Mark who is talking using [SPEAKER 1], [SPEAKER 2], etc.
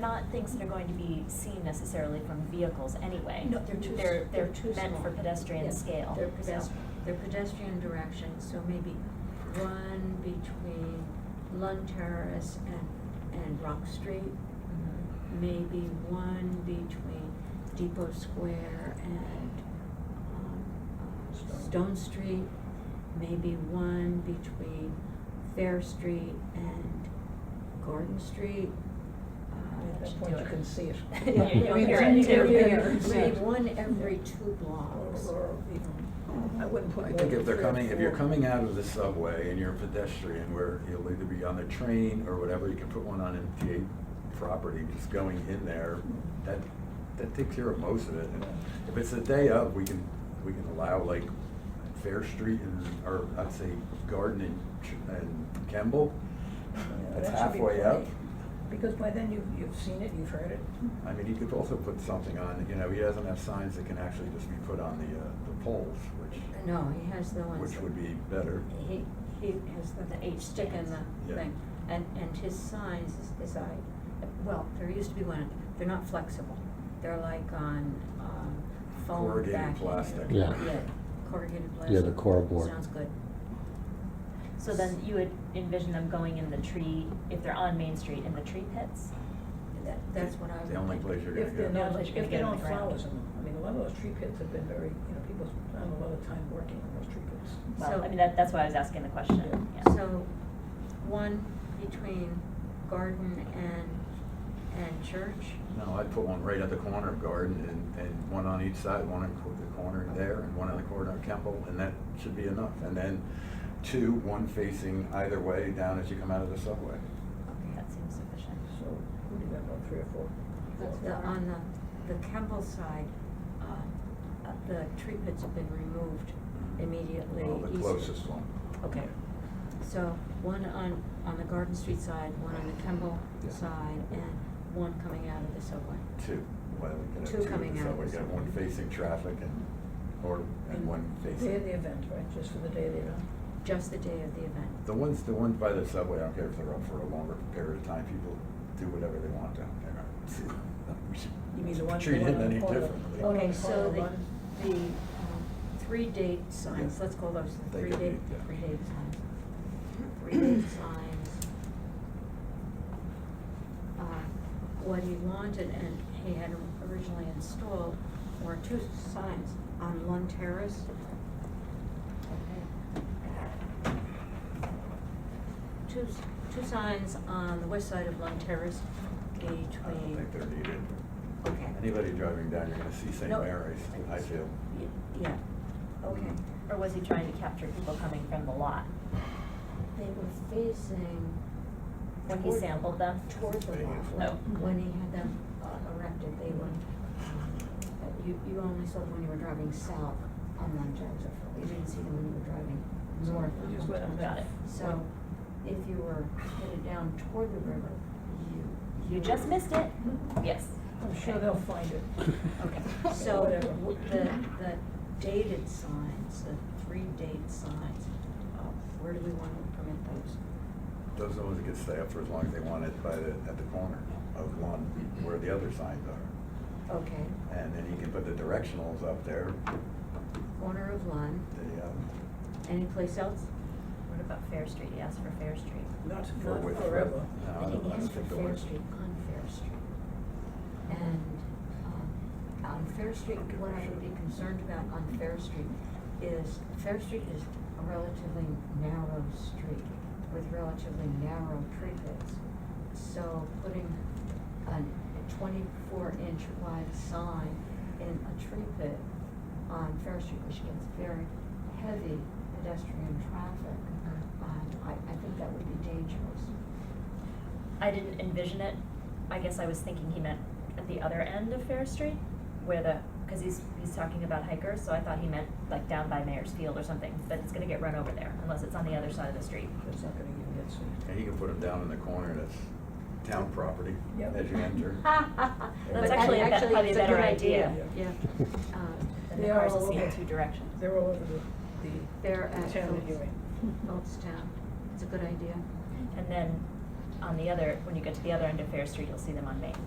[SPEAKER 1] not things that are going to be seen necessarily from vehicles anyway.
[SPEAKER 2] No, they're too,
[SPEAKER 1] They're, they're
[SPEAKER 2] too small.
[SPEAKER 1] meant for pedestrian
[SPEAKER 2] Yeah,
[SPEAKER 1] scale.
[SPEAKER 2] They're
[SPEAKER 1] so.
[SPEAKER 2] pedestrian, they're pedestrian direction, so maybe one between Lund Terrace and, and Rock Street.
[SPEAKER 1] Mhm.
[SPEAKER 2] Maybe one between Depot Square and, um, uh, Stone Street. Maybe one between Fair Street and Garden Street.
[SPEAKER 3] At
[SPEAKER 2] Uh,
[SPEAKER 3] that point, you can see it.
[SPEAKER 2] Yeah,
[SPEAKER 1] you
[SPEAKER 3] I mean,
[SPEAKER 1] hear
[SPEAKER 3] you
[SPEAKER 1] it.
[SPEAKER 3] can hear
[SPEAKER 1] Yeah.
[SPEAKER 3] it.
[SPEAKER 2] Maybe one every two blocks.
[SPEAKER 3] Or- or even- I wouldn't put.
[SPEAKER 4] I
[SPEAKER 3] more
[SPEAKER 4] think if
[SPEAKER 3] than
[SPEAKER 4] they're
[SPEAKER 3] three or
[SPEAKER 4] coming, if you're
[SPEAKER 3] four.
[SPEAKER 4] coming out of the subway and you're a pedestrian, where you'll either be on the train or whatever, you can put one on MTA property, just going in there, that, that takes care of most of it. And If it's the day of, we can, we can allow like Fair Street and, or I'd say Garden and Ch- and Kemble,
[SPEAKER 3] Yeah,
[SPEAKER 4] that's
[SPEAKER 3] that should be
[SPEAKER 4] halfway up.
[SPEAKER 3] plenty. Because by then you've, you've seen it, you've heard it.
[SPEAKER 4] I mean, he could also put something on, you know, he doesn't have signs that can actually just be put on the, uh, the poles, which,
[SPEAKER 2] No, he has the ones.
[SPEAKER 4] which
[SPEAKER 2] that-
[SPEAKER 4] would be better.
[SPEAKER 2] He, he has the, the H stick in the
[SPEAKER 4] Yeah.
[SPEAKER 2] thing, and, and his signs is, is I, well, there used to be one, they're not flexible. They're like on, um, foam
[SPEAKER 4] Corrugated
[SPEAKER 2] backing.
[SPEAKER 4] plastic.
[SPEAKER 5] Yeah.
[SPEAKER 2] Yeah, corrugated plastic.
[SPEAKER 5] Yeah, the core board.
[SPEAKER 2] Sounds good.
[SPEAKER 1] So then you would envision them going in the tree, if they're on Main Street, in the tree pits?
[SPEAKER 2] That, that's what I
[SPEAKER 4] It's
[SPEAKER 2] would
[SPEAKER 4] The only
[SPEAKER 2] think.
[SPEAKER 4] place you're gonna
[SPEAKER 3] If they're
[SPEAKER 4] get.
[SPEAKER 3] not,
[SPEAKER 1] Unless you can
[SPEAKER 3] if they
[SPEAKER 1] get on
[SPEAKER 3] don't
[SPEAKER 1] the ground.
[SPEAKER 3] flowers in them, I mean, a lot of those tree pits have been very, you know, people spend a lot of time working on those tree pits.
[SPEAKER 1] Well,
[SPEAKER 2] So-
[SPEAKER 1] I mean, that, that's why I was asking the question,
[SPEAKER 3] Yeah.
[SPEAKER 1] yeah.
[SPEAKER 2] So, one between garden and, and church.
[SPEAKER 4] No, I'd put one right at the corner of Garden and, and one on each side, one on co- the corner there and one on the corner of Kemble, and that should be enough. And then two, one facing either way down as you come out of the subway.
[SPEAKER 1] That seems sufficient.
[SPEAKER 3] So, who did that, about three or four?
[SPEAKER 2] That's the, on the, the Kemble side, uh, uh, the tree pits have been removed immediately
[SPEAKER 4] Well, the
[SPEAKER 2] east-
[SPEAKER 4] closest one.
[SPEAKER 2] Okay, so one on, on the Garden Street side, one on the Kemble
[SPEAKER 4] Yeah.
[SPEAKER 2] side, and one coming out of the subway.
[SPEAKER 4] Two, well, we could have
[SPEAKER 2] Two
[SPEAKER 4] two at
[SPEAKER 2] coming
[SPEAKER 4] the
[SPEAKER 2] out of
[SPEAKER 4] subway,
[SPEAKER 2] the
[SPEAKER 4] you have one
[SPEAKER 2] subway.
[SPEAKER 4] facing traffic and, or, and one
[SPEAKER 3] Day of the
[SPEAKER 4] facing.
[SPEAKER 3] event, right, just for the day of the event.
[SPEAKER 2] Just the day of the event.
[SPEAKER 4] The ones, the ones by the subway, I don't care if they're up for a longer period of time, people do whatever they want down there. We should
[SPEAKER 3] You mean the one, the
[SPEAKER 4] Treat
[SPEAKER 3] one
[SPEAKER 4] it
[SPEAKER 3] on the
[SPEAKER 4] any
[SPEAKER 3] corner?
[SPEAKER 4] differently.
[SPEAKER 3] one on
[SPEAKER 2] Okay,
[SPEAKER 3] the corner,
[SPEAKER 2] so the,
[SPEAKER 3] one-
[SPEAKER 2] the, um, three date signs,
[SPEAKER 4] Yeah.
[SPEAKER 2] let's call those the
[SPEAKER 4] They
[SPEAKER 2] three
[SPEAKER 4] could be,
[SPEAKER 2] date,
[SPEAKER 4] yeah.
[SPEAKER 2] three date signs. Three date signs. Uh, What he wanted, and he had originally installed, were two signs on Lund Terrace. Two, s- two signs on the west side of Lund Terrace between.
[SPEAKER 4] I don't think they're needed.
[SPEAKER 2] Okay.
[SPEAKER 4] Anybody driving down, you're gonna see St.
[SPEAKER 2] No.
[SPEAKER 4] Mary's, I feel.
[SPEAKER 2] Y- Yeah, okay.
[SPEAKER 1] Or was he trying to capture people coming from the lot
[SPEAKER 2] They were facing.
[SPEAKER 1] when he
[SPEAKER 2] toward-
[SPEAKER 1] sampled them?
[SPEAKER 2] Toward the
[SPEAKER 4] Facing
[SPEAKER 2] lot.
[SPEAKER 1] Oh.
[SPEAKER 2] When he had them uh, erected, they were, uh, you, you only saw them when you were driving south on Mount Joseph. You didn't see them when you were driving north on
[SPEAKER 3] Just
[SPEAKER 2] Mount
[SPEAKER 3] went
[SPEAKER 2] Joseph.
[SPEAKER 3] on
[SPEAKER 1] Got
[SPEAKER 3] that.
[SPEAKER 1] it.
[SPEAKER 2] So if you were headed down toward the river, you.
[SPEAKER 1] You just missed it?
[SPEAKER 2] Mm-hmm.
[SPEAKER 1] Yes.
[SPEAKER 3] I'm sure they'll find it.
[SPEAKER 2] Okay,
[SPEAKER 3] Or
[SPEAKER 2] so
[SPEAKER 3] whatever.
[SPEAKER 2] w- the, the dated signs, the three date signs, uh, where do we want to permit those?
[SPEAKER 4] Those ones that could stay up for as long as they wanted by the, at the corner of one where the other signs are.
[SPEAKER 2] Okay,
[SPEAKER 4] And then you can put the directionals up there,
[SPEAKER 2] corner of Lund,
[SPEAKER 4] the, um,
[SPEAKER 2] any place else?
[SPEAKER 1] What about Fair Street? He asked for Fair Street.
[SPEAKER 3] Not,
[SPEAKER 4] for
[SPEAKER 3] not
[SPEAKER 4] with-
[SPEAKER 3] forever.
[SPEAKER 4] No, I don't, I don't think the
[SPEAKER 2] Fair
[SPEAKER 4] ones.
[SPEAKER 2] Street, on Fair Street. And, um, on Fair Street,
[SPEAKER 4] Okay,
[SPEAKER 2] what I
[SPEAKER 4] sure.
[SPEAKER 2] would be concerned about on Fair Street is, Fair Street is a relatively narrow street with relatively narrow tree pits. So putting a twenty-four inch wide sign in a tree pit on Fair Street, which gets very heavy pedestrian traffic, um, I, I think that would be dangerous.
[SPEAKER 1] I didn't envision it. I guess I was thinking he meant at the other end of Fair Street, where the, because he's, he's talking about hikers, so I thought he meant like down by Mayor's Field or something, but it's gonna get run over there unless it's on the other side of the street.
[SPEAKER 3] It's not gonna even get seen.
[SPEAKER 4] And you can put them down in the corner that's town property
[SPEAKER 3] Yep.
[SPEAKER 4] as you enter.
[SPEAKER 2] That's
[SPEAKER 4] actually a
[SPEAKER 1] be- probably a better idea.
[SPEAKER 2] Yeah. Um,
[SPEAKER 1] Then
[SPEAKER 3] They
[SPEAKER 1] the
[SPEAKER 3] are
[SPEAKER 1] cars
[SPEAKER 3] all
[SPEAKER 1] will see in
[SPEAKER 3] over.
[SPEAKER 1] two directions.
[SPEAKER 3] They're all over the,
[SPEAKER 2] They're
[SPEAKER 3] the,
[SPEAKER 2] at
[SPEAKER 3] the town
[SPEAKER 2] Phillips.
[SPEAKER 3] anyway.
[SPEAKER 2] Town, it's a good idea.
[SPEAKER 1] And then on the other, when you get to the other end of Fair Street, you'll see them on Main.